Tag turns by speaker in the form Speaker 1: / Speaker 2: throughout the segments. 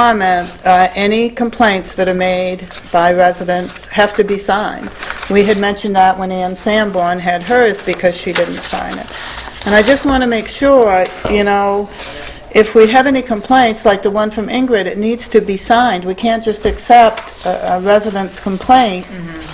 Speaker 1: comment, uh, any complaints that are made by residents have to be signed. We had mentioned that when Ann Sanborn had hers because she didn't sign it. And I just want to make sure, you know, if we have any complaints, like the one from Ingrid, it needs to be signed. We can't just accept a a resident's complaint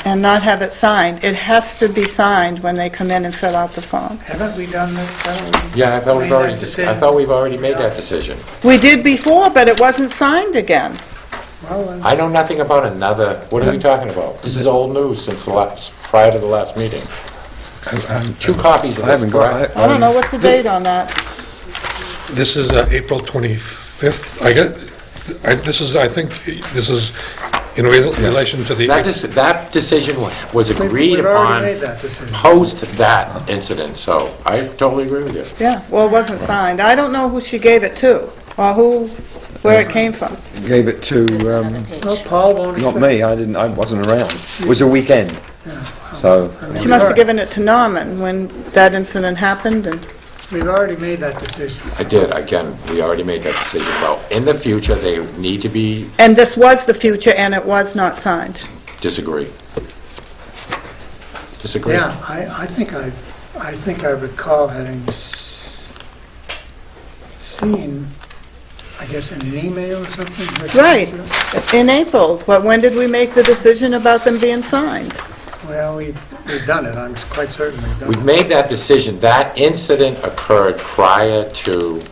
Speaker 1: and not have it signed. It has to be signed when they come in and fill out the form.
Speaker 2: Haven't we done this? Haven't we
Speaker 3: Yeah, I thought
Speaker 2: made
Speaker 3: we've
Speaker 2: that
Speaker 3: already,
Speaker 2: decision?
Speaker 3: I thought we've already made that decision.
Speaker 1: We did before, but it wasn't signed again.
Speaker 2: Well, it's-
Speaker 3: I know nothing about another, what are we talking about? This is old news since the last, prior to the last meeting. Two copies of
Speaker 4: Um, I
Speaker 3: this,
Speaker 4: haven't got,
Speaker 3: correct?
Speaker 1: I don't
Speaker 4: I-
Speaker 1: know, what's the date on that?
Speaker 5: This is uh, April 25th. I get, I- this is, I think, this is in rel- relation to the...
Speaker 3: That dec- that decision wa- was
Speaker 2: We've-
Speaker 3: agreed
Speaker 2: We've already made
Speaker 3: upon
Speaker 2: that decision.
Speaker 3: post that incident, so I totally agree with you.
Speaker 1: Yeah, well, it wasn't signed. I don't know who she gave it to, or who, where it came from.
Speaker 4: gave it to, um,
Speaker 2: Well, Paul won't
Speaker 4: not
Speaker 2: accept.
Speaker 4: me, I didn't, I wasn't around. It was a weekend, so,
Speaker 1: She must have given it to Norman when that incident happened, and,
Speaker 2: We've already made that decision.
Speaker 3: I did, again, we already made that decision about, in the future, they need to be,
Speaker 1: and this was the future, and it was not signed.
Speaker 3: disagree. Disagree?
Speaker 2: Yeah, I, I think I, I think I recall having s- seen, I guess, in an email or something. which-
Speaker 1: Right, in April, but when did we make the decision about them being signed?
Speaker 2: Well, we, we've done it, I'm quite certain we've
Speaker 3: We've
Speaker 2: done it.
Speaker 3: made that decision, that incident occurred prior to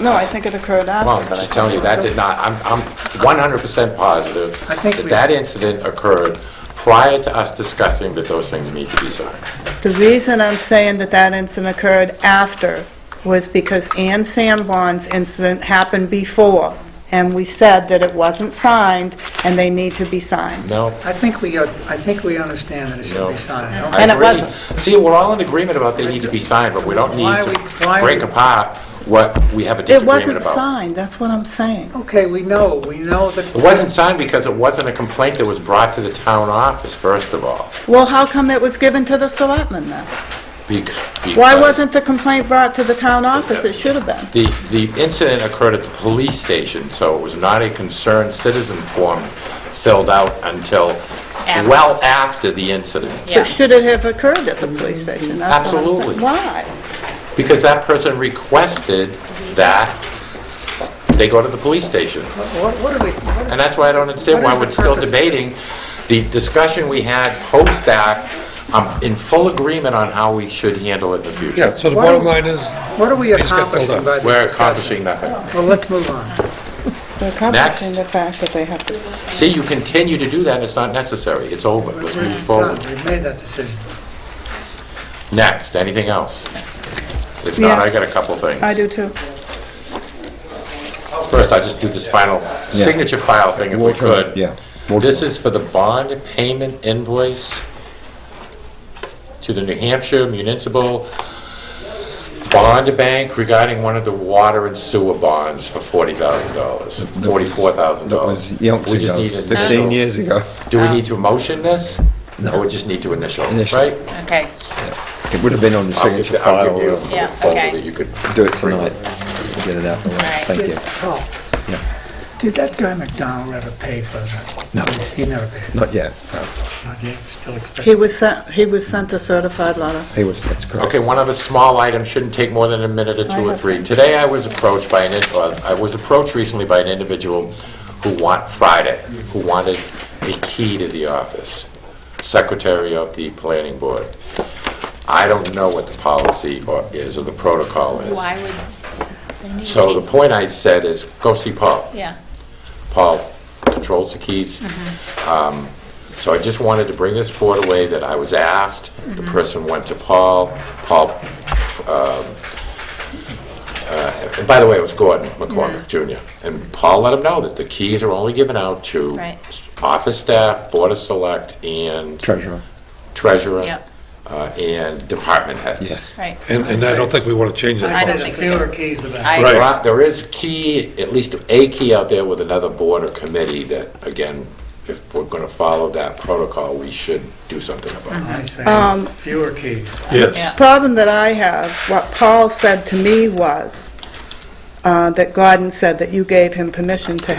Speaker 1: No, I think it occurred
Speaker 3: Well,
Speaker 1: after.
Speaker 3: I'm just telling you, that did not, I'm, I'm 100% positive
Speaker 2: I think
Speaker 3: that
Speaker 2: we-
Speaker 3: that incident occurred prior to us discussing that those things need to be signed.
Speaker 1: The reason I'm saying that that incident occurred after was because Ann Sanborn's incident happened before, and we said that it wasn't signed, and they need to be signed.
Speaker 3: No?
Speaker 2: I think we, are- I think we understand that it should
Speaker 3: No.
Speaker 2: be signed.
Speaker 3: I
Speaker 1: And it
Speaker 3: agree.
Speaker 1: wasn't.
Speaker 3: See, we're all in agreement about they need to be signed, but we don't need
Speaker 2: Why we- why
Speaker 3: to
Speaker 2: we-
Speaker 3: break apart what we have a
Speaker 1: It
Speaker 3: disagreement
Speaker 1: wasn't
Speaker 3: about.
Speaker 1: signed, that's what I'm saying.
Speaker 2: Okay, we know, we know that.
Speaker 3: It wasn't signed because it wasn't a complaint that was brought to the town office, first of all.
Speaker 1: Well, how come it was given to the selectmen then?
Speaker 3: bec-
Speaker 1: Why
Speaker 3: because
Speaker 1: wasn't the complaint brought to the town office? It should have been.
Speaker 3: The, the incident occurred at the police station, so it was not a concerned citizen form filled out until well after the incident.
Speaker 1: But should it have occurred at the police station? That's what I'm saying.
Speaker 3: Absolutely.
Speaker 1: Why?
Speaker 3: Because that person requested that they go to the police station.
Speaker 2: What what are we, what
Speaker 3: And that's why I don't understand
Speaker 2: What
Speaker 3: why
Speaker 2: is the
Speaker 3: we're still
Speaker 2: purpose of this?
Speaker 3: debating. The discussion we had post that, I'm in full agreement on how we should handle it in the future.
Speaker 5: Yeah, so the
Speaker 2: Why don't-
Speaker 5: bottom line is,
Speaker 2: What are we
Speaker 5: These get filled
Speaker 2: accomplishing
Speaker 5: up.
Speaker 2: by this discussion?
Speaker 3: We're accomplishing nothing.
Speaker 2: Well, let's move on.
Speaker 1: They're accomplishing the fact that they have to
Speaker 3: See, you continue to do that, it's not necessary, it's over, let's move
Speaker 2: It's done.
Speaker 3: forward.
Speaker 2: We've made that decision.
Speaker 3: Next, anything else? If not, I
Speaker 1: Yes.
Speaker 3: got a couple things.
Speaker 1: I do too.
Speaker 3: First, I'll just do this final signature file thing if we
Speaker 4: Walter,
Speaker 3: could.
Speaker 4: yeah. Walter.
Speaker 3: This is for the bond payment invoice to the New Hampshire Municipal Bond Bank regarding one of the water and sewer bonds for $40,000,
Speaker 4: that was
Speaker 3: $44,000.
Speaker 4: yonks
Speaker 3: We just need
Speaker 4: ago,
Speaker 3: an
Speaker 4: 15
Speaker 3: initial.
Speaker 4: years ago.
Speaker 3: Do we need to motion this? Or we just need to initial,
Speaker 4: Initial.
Speaker 3: right?
Speaker 6: Okay,
Speaker 4: It would have been on the
Speaker 3: I'll give
Speaker 4: signature
Speaker 3: you- I'll
Speaker 4: file,
Speaker 3: give you a
Speaker 4: we'll
Speaker 6: Yeah,
Speaker 3: folder
Speaker 6: okay.
Speaker 3: that you could
Speaker 4: do it tonight, We'll get it out the way,
Speaker 6: Right.
Speaker 4: thank you.
Speaker 2: Paul, did that guy McDonald ever pay for that? No. He never paid.
Speaker 4: Not yet, no,
Speaker 2: Not yet, still
Speaker 1: He
Speaker 2: expecting.
Speaker 1: was sent, he was sent a certified letter.
Speaker 4: he was, that's correct.
Speaker 3: Okay, one other small item, shouldn't take more than a minute or
Speaker 1: I
Speaker 3: two or
Speaker 1: have
Speaker 3: three.
Speaker 1: some.
Speaker 3: Today, I was approached by an, in- uh, I was approached recently by an individual who want, Friday, who wanted a key to the office, secretary of the planning board. I don't know what the policy or is or the protocol is.
Speaker 6: why would they need
Speaker 3: So the
Speaker 6: to-
Speaker 3: point I said is, go see Paul.
Speaker 6: Yeah,
Speaker 3: Paul controls the keys.
Speaker 6: Mm-hmm.
Speaker 3: Um, So I just wanted to bring this forward away that I was asked, the
Speaker 6: Mm-hmm.
Speaker 3: person went to Paul, Paul, um, uh, and by the way, it was Gordon
Speaker 6: Mm-hmm.
Speaker 3: McCormick Jr. And Paul let him know that the keys are only given out to
Speaker 6: Right.
Speaker 3: office staff, board of select, and
Speaker 4: Treasurer,
Speaker 3: treasurer,
Speaker 6: Yep.
Speaker 3: uh, and department heads.
Speaker 4: Yes.
Speaker 6: right.
Speaker 5: and and I don't think we want to change
Speaker 2: I
Speaker 5: that.
Speaker 6: don't
Speaker 2: said a
Speaker 6: think
Speaker 2: few
Speaker 6: we
Speaker 2: were
Speaker 6: did.
Speaker 2: keys to that.
Speaker 6: I-
Speaker 5: Right.
Speaker 3: There are- There is key, at least a key out there with another board or committee that, again, if we're going to follow that protocol, we should do something about.
Speaker 2: I
Speaker 1: Um,
Speaker 2: said, fewer keys.
Speaker 5: Yes.
Speaker 6: Yeah.
Speaker 1: Problem that I have, what Paul said to me was, uh, that Gordon said that you gave him permission to